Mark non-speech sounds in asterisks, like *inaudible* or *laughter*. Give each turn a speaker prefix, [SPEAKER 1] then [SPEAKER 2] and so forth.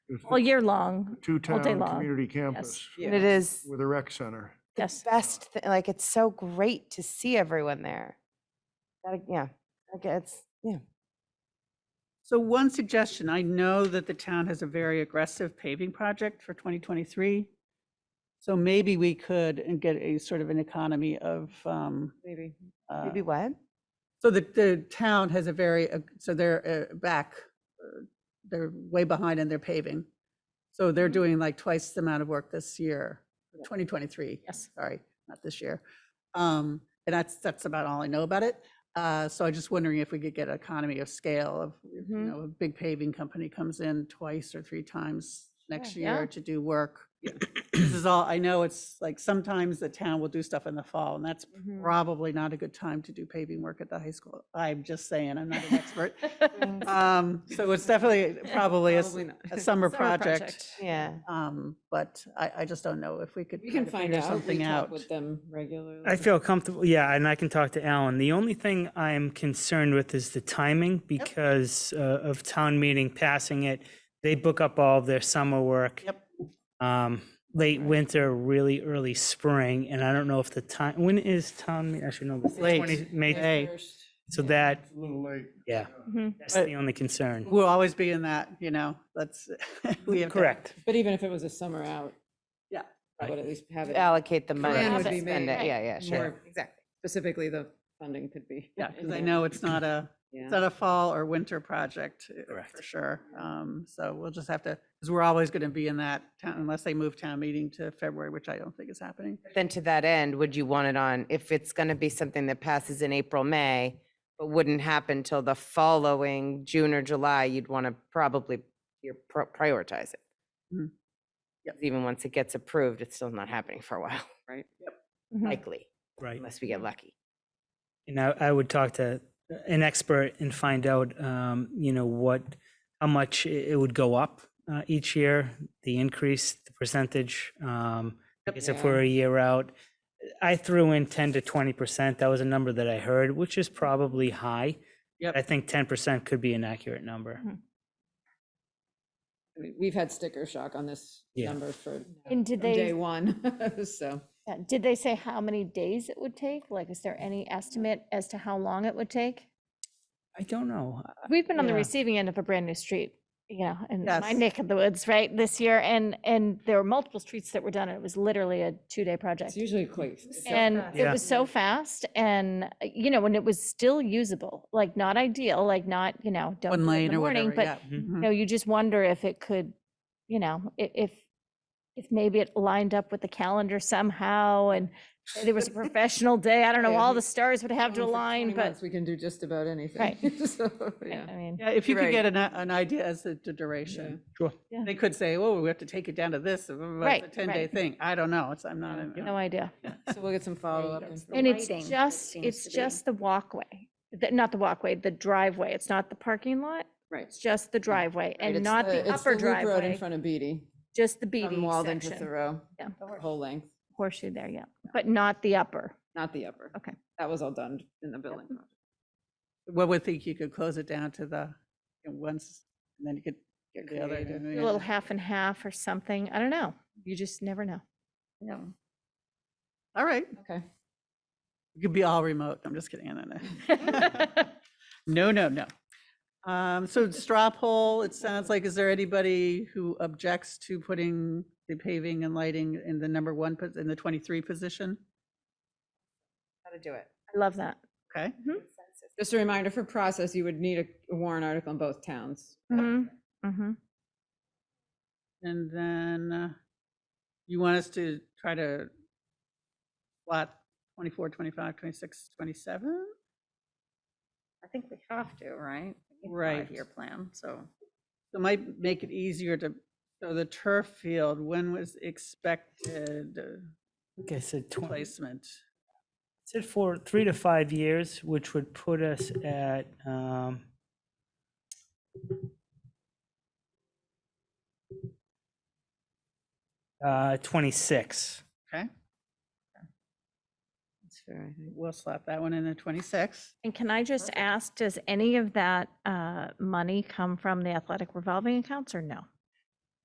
[SPEAKER 1] It's
[SPEAKER 2] all
[SPEAKER 1] the
[SPEAKER 2] year long. all day
[SPEAKER 1] two-town
[SPEAKER 2] long.
[SPEAKER 1] community campus
[SPEAKER 3] And it is
[SPEAKER 1] with a rec center.
[SPEAKER 2] Yes.
[SPEAKER 3] best, thi- like, it's so great to see everyone there. Gotta- Yeah, like, it's, yeah.
[SPEAKER 4] So one suggestion, I know that the town has a very aggressive paving project for 2023. So maybe we could and get a sort of an economy of, um,
[SPEAKER 3] Maybe.
[SPEAKER 4] uh,
[SPEAKER 3] Maybe what?
[SPEAKER 4] so the, the town has a very, ag- so they're uh, back, uh, they're way behind in their paving. So
[SPEAKER 3] Mm-hmm.
[SPEAKER 4] they're doing like twice the amount of work this year, 2023.
[SPEAKER 2] Yes.
[SPEAKER 4] sorry, not this year. Um, and that's, that's about all I know about it. Uh, so I'm just wondering if we could get economy of scale of, you
[SPEAKER 5] Mm-hmm.
[SPEAKER 3] Mhm.
[SPEAKER 4] know, a big paving company comes in twice or three times next
[SPEAKER 3] Yeah.
[SPEAKER 4] year to do work. This is all, I know it's like sometimes the town will do stuff in the fall and that's
[SPEAKER 5] Mm.
[SPEAKER 4] probably not a good time to do paving work at the high school. I'm just saying, I'm not an expert.
[SPEAKER 2] Mm-hmm.
[SPEAKER 4] Um, so it's
[SPEAKER 5] *laughs*
[SPEAKER 4] definitely probably a, s-
[SPEAKER 5] Probably *laughs* not.
[SPEAKER 4] a summer project.
[SPEAKER 3] Yeah.
[SPEAKER 4] Um, but I, I just don't know if we could.
[SPEAKER 5] We can
[SPEAKER 4] kinda
[SPEAKER 5] find
[SPEAKER 4] figure
[SPEAKER 5] out. We
[SPEAKER 4] Something
[SPEAKER 5] talk
[SPEAKER 4] out.
[SPEAKER 5] with them regularly.
[SPEAKER 6] I feel comfortable, yeah, and I can talk to Alan. The only thing I'm concerned with is the timing because uh, of town meeting passing it. They book up all of their summer work.
[SPEAKER 4] Yep.
[SPEAKER 6] Um, late
[SPEAKER 5] Right.
[SPEAKER 6] winter, really early spring, and I don't know if the time, when is town, meet- I should know. this.
[SPEAKER 4] Late.
[SPEAKER 6] 20 May,
[SPEAKER 4] Hey.
[SPEAKER 5] First.
[SPEAKER 6] so that,
[SPEAKER 1] It's a little late.
[SPEAKER 6] yeah,
[SPEAKER 2] Mhm.
[SPEAKER 6] that's
[SPEAKER 4] But-
[SPEAKER 6] the only concern.
[SPEAKER 4] We'll always be in that, you know, that's, *laughs* we have. to-
[SPEAKER 6] Correct.
[SPEAKER 5] But even if it was a summer out.
[SPEAKER 4] Yeah.
[SPEAKER 5] I would at least have it.
[SPEAKER 3] Allocate the money.
[SPEAKER 5] Plan
[SPEAKER 2] have
[SPEAKER 5] would
[SPEAKER 3] to
[SPEAKER 2] it
[SPEAKER 5] be
[SPEAKER 3] spend
[SPEAKER 5] made.
[SPEAKER 3] it. Yeah, yeah, sure.
[SPEAKER 5] more Specifically, the funding could be.
[SPEAKER 4] Yeah, because I know it's not a,
[SPEAKER 5] Yeah.
[SPEAKER 4] it's not a fall or winter project uh, for
[SPEAKER 6] Correct.
[SPEAKER 4] sure. Um, so we'll just have to, because we're always going to be in that town unless they move town meeting to February, which I don't think is happening.
[SPEAKER 3] Then to that end, would you want it on, if it's going to be something that passes in April, May, but wouldn't happen till the following June or July, you'd want to probably, you're pro- prioritize it.
[SPEAKER 4] Mhm. Yep.
[SPEAKER 3] 'Cause Even once it gets approved, it's still not happening for a while, *laughs*
[SPEAKER 5] Right.
[SPEAKER 2] Mhm.
[SPEAKER 3] likely,
[SPEAKER 6] Right.
[SPEAKER 3] unless we get lucky.
[SPEAKER 6] And I, I would talk to an expert and find out, um, you know, what, how much i- it would go up uh, each year, the increase, the percentage. Um, I
[SPEAKER 4] Yep.
[SPEAKER 6] guess if we're
[SPEAKER 5] Yeah.
[SPEAKER 6] a year out, I threw in 10 to 20%. That was a number that I heard, which is probably high.
[SPEAKER 4] Yep.
[SPEAKER 6] I think 10% could be an accurate number.
[SPEAKER 5] I mean, We've had sticker shock on this
[SPEAKER 6] Yeah.
[SPEAKER 5] number for.
[SPEAKER 2] And did
[SPEAKER 5] from Day
[SPEAKER 2] they-
[SPEAKER 5] one, *laughs* so.
[SPEAKER 2] Yeah, Did they say how many days it would take? Like, is there any estimate as to how long it would take?
[SPEAKER 6] I don't know.
[SPEAKER 2] We've been on the
[SPEAKER 6] yeah.
[SPEAKER 2] receiving end of a brand new street, you know, in my
[SPEAKER 4] Yes.
[SPEAKER 2] neck of the woods, right, this year. And, and there were multiple streets that were done and it was literally a two-day project.
[SPEAKER 5] It's usually quite.
[SPEAKER 2] And
[SPEAKER 5] fast.
[SPEAKER 2] it
[SPEAKER 6] Yeah.
[SPEAKER 2] was so fast and, uh, you know, and it was still usable, like not ideal, like not, you know, don't
[SPEAKER 4] One
[SPEAKER 2] do it in
[SPEAKER 4] lane
[SPEAKER 2] the
[SPEAKER 4] or
[SPEAKER 2] morning,
[SPEAKER 4] whatever,
[SPEAKER 2] but
[SPEAKER 4] yeah.
[SPEAKER 6] Mhm.
[SPEAKER 4] Mhm.
[SPEAKER 5] Mm-hmm.
[SPEAKER 2] No, you just wonder if it could, you know, i- if, if maybe it lined up with the calendar somehow and say there was a
[SPEAKER 5] *laughs*
[SPEAKER 2] professional day, I don't know,
[SPEAKER 5] Yeah,
[SPEAKER 2] all
[SPEAKER 5] we-
[SPEAKER 2] the stars would have to
[SPEAKER 5] Only for 20
[SPEAKER 2] align, but,
[SPEAKER 5] months, We can do just about anything.
[SPEAKER 2] Right.
[SPEAKER 5] *laughs* So,
[SPEAKER 2] I I
[SPEAKER 5] yeah.
[SPEAKER 2] mean,
[SPEAKER 4] Yeah, if you
[SPEAKER 5] Right.
[SPEAKER 4] could get an, i- an idea as to the duration.
[SPEAKER 6] Sure.
[SPEAKER 2] Yeah.
[SPEAKER 4] They could say, oh, we have to take it down to this, uh, blah, blah, blah,
[SPEAKER 2] Right,
[SPEAKER 4] it's a 10-day
[SPEAKER 2] right.
[SPEAKER 4] thing. I don't know. It's, I'm not. uh,
[SPEAKER 5] Yeah.
[SPEAKER 4] an-
[SPEAKER 2] no idea.
[SPEAKER 5] So we'll get some follow-up. and-
[SPEAKER 2] And it's just, it's just the walkway, the- not the walkway, the driveway. It's not the parking lot.
[SPEAKER 5] Right.
[SPEAKER 2] It's just the driveway
[SPEAKER 5] Mm. Right,
[SPEAKER 2] and
[SPEAKER 5] it's
[SPEAKER 2] not the
[SPEAKER 5] it's
[SPEAKER 2] upper
[SPEAKER 5] loop Road in
[SPEAKER 2] driveway,
[SPEAKER 5] front of Beatty.
[SPEAKER 2] just the
[SPEAKER 5] From
[SPEAKER 2] BD
[SPEAKER 5] Walden to
[SPEAKER 2] section,
[SPEAKER 5] Thoreau,
[SPEAKER 2] Yeah.
[SPEAKER 5] the whole length,
[SPEAKER 2] horseshoe there, yeah, but not the upper.
[SPEAKER 5] not the upper.
[SPEAKER 2] Okay.
[SPEAKER 5] That was all done in the building. project.
[SPEAKER 4] One would think you could close it down to the, you know, once, and then you could get the other.
[SPEAKER 5] creative.
[SPEAKER 4] and then
[SPEAKER 2] A
[SPEAKER 4] the
[SPEAKER 2] little
[SPEAKER 4] other.
[SPEAKER 2] half and half or something. I don't know. You just never
[SPEAKER 5] *laughs*
[SPEAKER 2] know.
[SPEAKER 4] Yeah. All right.
[SPEAKER 5] Okay.
[SPEAKER 4] It could be all remote. I'm just kidding. I
[SPEAKER 2] *laughs*
[SPEAKER 4] don't know. No, no, no. Um, so straw poll, it sounds like, is there anybody who objects to putting the paving and lighting in the number one, pos- in the 23 position?
[SPEAKER 3] How to do it.
[SPEAKER 2] I love that.
[SPEAKER 4] Okay.
[SPEAKER 2] Mm-hmm.
[SPEAKER 5] Just a reminder for process, you would need a- a warrant article in both towns.
[SPEAKER 2] Mm-hmm, mm-hmm.
[SPEAKER 4] And then uh, you want us to try to slot 24, 25, 26, 27?
[SPEAKER 7] I think we have to, right? It's a
[SPEAKER 4] Right.
[SPEAKER 7] Five-year plan, so.
[SPEAKER 4] It might make it easier to, so the turf field, when was expected uh,
[SPEAKER 6] Like I said, 20.
[SPEAKER 4] placement?
[SPEAKER 6] Said for three to five years, which would put us at, um, uh, twenty-six.
[SPEAKER 4] Okay,
[SPEAKER 5] That's fair, I think.
[SPEAKER 4] we'll slot that one in the 26.
[SPEAKER 2] And can I just ask, does any of that uh, money come from the athletic revolving accounts or no?